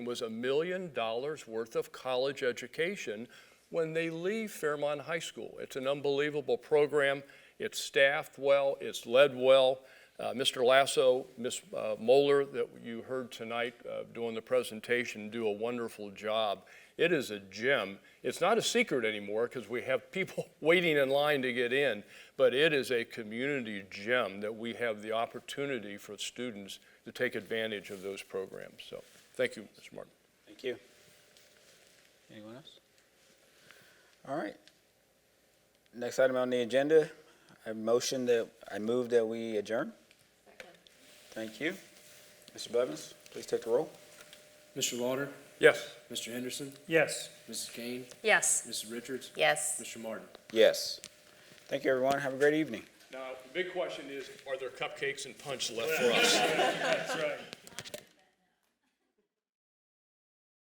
was a million dollars worth of college education when they leave Fairmont High School. It's an unbelievable program. It's staffed well, it's led well. Uh, Mr. Lasso, Ms. uh, Moeller, that you heard tonight uh, doing the presentation, do a wonderful job. It is a gem. It's not a secret anymore because we have people waiting in line to get in, but it is a community gem that we have the opportunity for students to take advantage of those programs. So thank you, Mr. Martin. Thank you. Anyone else? All right. Next item on the agenda, I motion that, I move that we adjourn. Thank you. Mr. Blevins, please take the roll. Mr. Lauder, Yes. Mr. Henderson, Yes. Mrs. Kane, Yes. Mrs. Richards, Yes. Mr. Martin. Yes. Thank you, everyone. Have a great evening. Now, the big question is, are there cupcakes and punch left for us? That's right.